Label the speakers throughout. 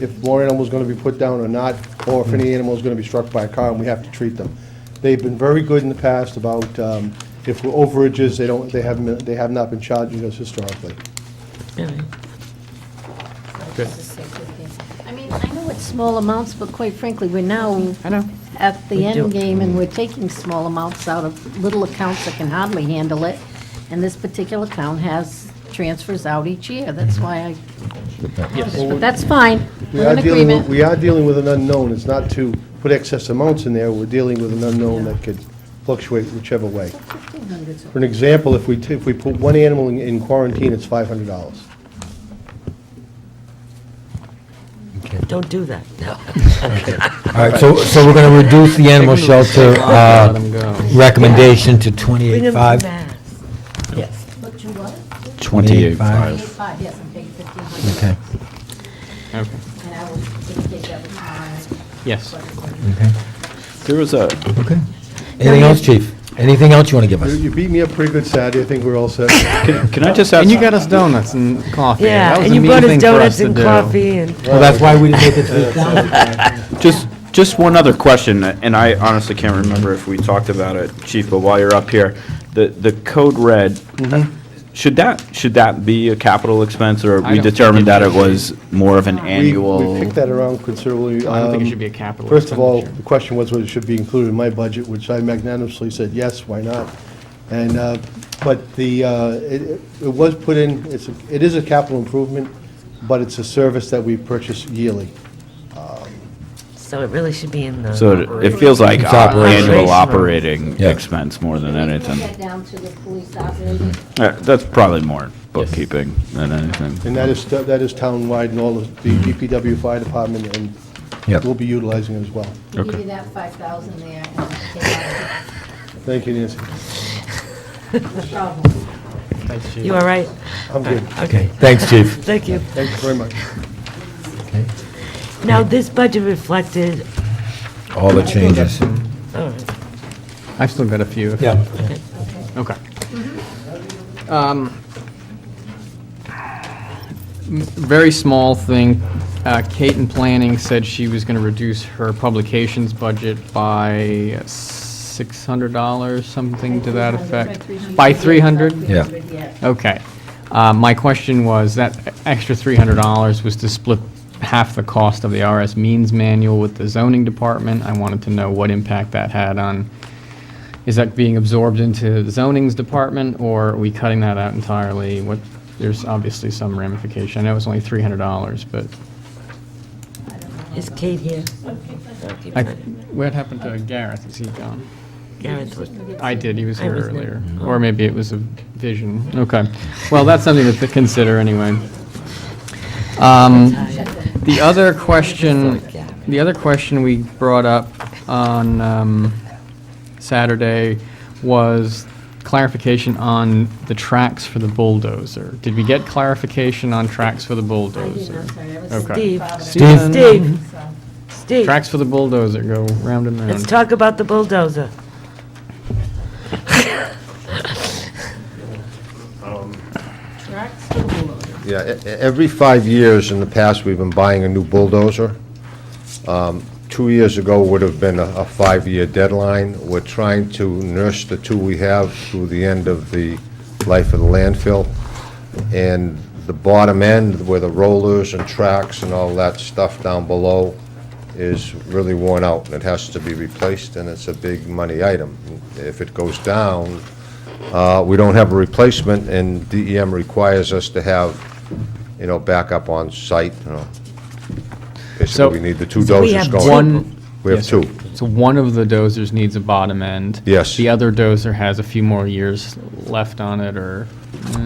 Speaker 1: if more animals gonna be put down or not, or if
Speaker 2: Mm.
Speaker 1: any animal is gonna be struck by a car and we have to treat them. They've been very good in the past about, um, if we're overages, they don't, they haven't, they have not been charging us historically.
Speaker 2: Good.
Speaker 3: I mean, I know it's small amounts, but quite frankly, we're now
Speaker 4: I know. Mm.
Speaker 3: at the
Speaker 4: We do.
Speaker 3: end game, and we're taking small amounts out of little accounts that can hardly handle it. And this particular account has transfers out each year, that's
Speaker 4: Mm-hmm.
Speaker 3: why I, but that's fine,
Speaker 1: We
Speaker 3: we're
Speaker 1: are
Speaker 3: in
Speaker 1: dealing, with-
Speaker 3: agreement.
Speaker 1: we are dealing with an unknown, it's not to put excess amounts in there, we're dealing with an unknown that could fluctuate whichever way. For an example, if we, t- if we put one animal in- in quarantine, it's five hundred dollars.
Speaker 4: Don't do that. No.
Speaker 5: All right, so, so we're gonna reduce the animal shelter, uh, recommendation to
Speaker 4: Bring them
Speaker 5: twenty-eight-five?
Speaker 4: back. Yes.
Speaker 3: But you what?
Speaker 6: Twenty-eight
Speaker 3: Eight
Speaker 6: five.
Speaker 3: five, yes, I'm paying fifteen
Speaker 5: Okay.
Speaker 3: hundred.
Speaker 2: Okay.
Speaker 3: And I will indicate that with my.
Speaker 2: Yes.
Speaker 5: Okay.
Speaker 6: There was a,
Speaker 5: Okay. Anything else, chief? Anything else you wanna give
Speaker 1: You-
Speaker 5: us?
Speaker 1: You beat me up pretty good Saturday, I think we're all set.
Speaker 6: can I just ask?
Speaker 2: And you got us donuts and coffee. That
Speaker 4: Yeah,
Speaker 2: was
Speaker 4: and
Speaker 2: a
Speaker 4: you
Speaker 2: mean
Speaker 4: brought us
Speaker 2: thing for
Speaker 4: donuts
Speaker 2: to
Speaker 4: and
Speaker 2: do.
Speaker 4: coffee and.
Speaker 5: Well, that's why we didn't make it three thousand.
Speaker 6: Just, just one other question, and I honestly can't remember if we talked about it, Chief, but while you're up here, the, the code red, should that, should that be a capital expense, or
Speaker 2: I
Speaker 6: we
Speaker 2: don't think
Speaker 6: determined
Speaker 2: it
Speaker 6: that it
Speaker 2: should.
Speaker 6: was more of an
Speaker 1: We-
Speaker 6: annual?
Speaker 1: We picked that around considerably.
Speaker 2: I don't think it
Speaker 1: Um,
Speaker 2: should be a capital
Speaker 1: First of all,
Speaker 2: expenditure.
Speaker 1: the question was whether it should be included in my budget, which I magnanimously said, yes, why not? And, uh, but the, uh, it it was put in, it's, a- it is a capital improvement, but it's a service that we purchase yearly.
Speaker 4: So it really should be in the.
Speaker 6: So it- it feels like
Speaker 5: It's
Speaker 6: uh,
Speaker 4: operational.
Speaker 6: annual operating
Speaker 5: Yeah.
Speaker 6: expense more than
Speaker 3: Get
Speaker 6: anything.
Speaker 3: down to the police operating.
Speaker 6: Uh, That's probably more bookkeeping than anything.
Speaker 1: And that is, that is townwide and all of the DPW Fire Department, and
Speaker 5: Yep.
Speaker 1: we'll be utilizing it as well.
Speaker 3: We give you that five thousand there, and take out
Speaker 1: Thank you, Nancy.
Speaker 3: the problem.
Speaker 4: You all right?
Speaker 1: I'm good.
Speaker 5: Okay, thanks, chief.
Speaker 4: Thank you.
Speaker 1: Thank you very much.
Speaker 4: Now, this budget reflected,
Speaker 5: All the changes.
Speaker 4: all right,
Speaker 2: I've still got a few.
Speaker 5: Yeah.
Speaker 2: Okay. Um, m- Very small thing. Uh, Kate in planning said she was going to reduce her publications budget by $600, something to that effect. By 300?
Speaker 5: Yeah.
Speaker 2: Okay. Uh, My question was, that extra $300 was to split half the cost of the RS Means Manual with the zoning department. I wanted to know what impact that had on, is that being absorbed into the zoning's department, or are we cutting that out entirely? What, there's obviously some ramification. I know it's only $300, but
Speaker 4: is Kate here?
Speaker 2: I, what happened to Gareth? Is he gone?
Speaker 4: Gareth was-
Speaker 2: I did, he was here
Speaker 4: I was there. Oh.
Speaker 2: earlier. Or maybe it was a vision. Okay. Well, that's something to consider anyway. Um, The other question, the other question we brought up on um, Saturday was clarification on the tracks for the bulldozer. Did we get clarification on tracks for the bulldozer? Okay.
Speaker 4: Steve,
Speaker 2: Steve.
Speaker 4: Steve, Steve,
Speaker 2: Um, Tracks for the bulldozer go round and round.
Speaker 4: let's talk about the bulldozer.
Speaker 7: Yeah, e- e- every five years in the past, we've been buying a new bulldozer. Um, Two years ago would have been a a five-year deadline. We're trying to nurse the two we have through the end of the life of the landfill. And the bottom end, where the rollers and tracks and all that stuff down below is really worn out, and it has to be replaced, and it's a big money item. If it goes down, uh, we don't have a replacement, and DEM requires us to have, you know, backup on site, you know.
Speaker 2: So-
Speaker 7: Basically, we need the two
Speaker 4: So we
Speaker 7: doses
Speaker 4: have
Speaker 7: going.
Speaker 2: One.
Speaker 7: We have
Speaker 2: Yes, sir.
Speaker 7: two.
Speaker 2: So one of the dozers needs a bottom end.
Speaker 7: Yes.
Speaker 2: The other dozer has a few more years left on it, or,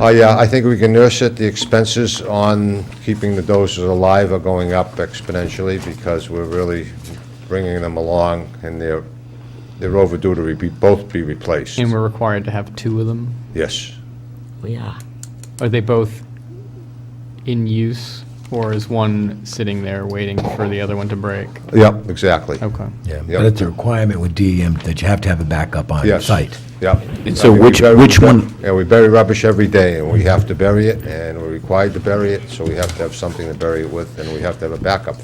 Speaker 7: Oh, yeah, I think we can nurse it. The expenses on keeping the doses alive are going up exponentially because we're really bringing them along, and they're, they're overdue to be, both be replaced.
Speaker 2: and we're required to have two of them?
Speaker 7: Yes.
Speaker 4: We are.
Speaker 2: Are they both in use, or is one sitting there waiting for the other one to break?
Speaker 7: Yep, exactly.
Speaker 2: Okay.
Speaker 5: E Yeah, but it's a requirement with DEM that you have to have a backup on
Speaker 7: Yes.
Speaker 5: site.
Speaker 7: Yep.
Speaker 8: And
Speaker 7: I
Speaker 8: so
Speaker 7: mean, we
Speaker 8: which-
Speaker 7: bury-
Speaker 8: which one-
Speaker 7: Yeah, we bury rubbish every day, and we have to bury it, and we're required to bury it, so we have to have something to bury it with, and we have to have a backup for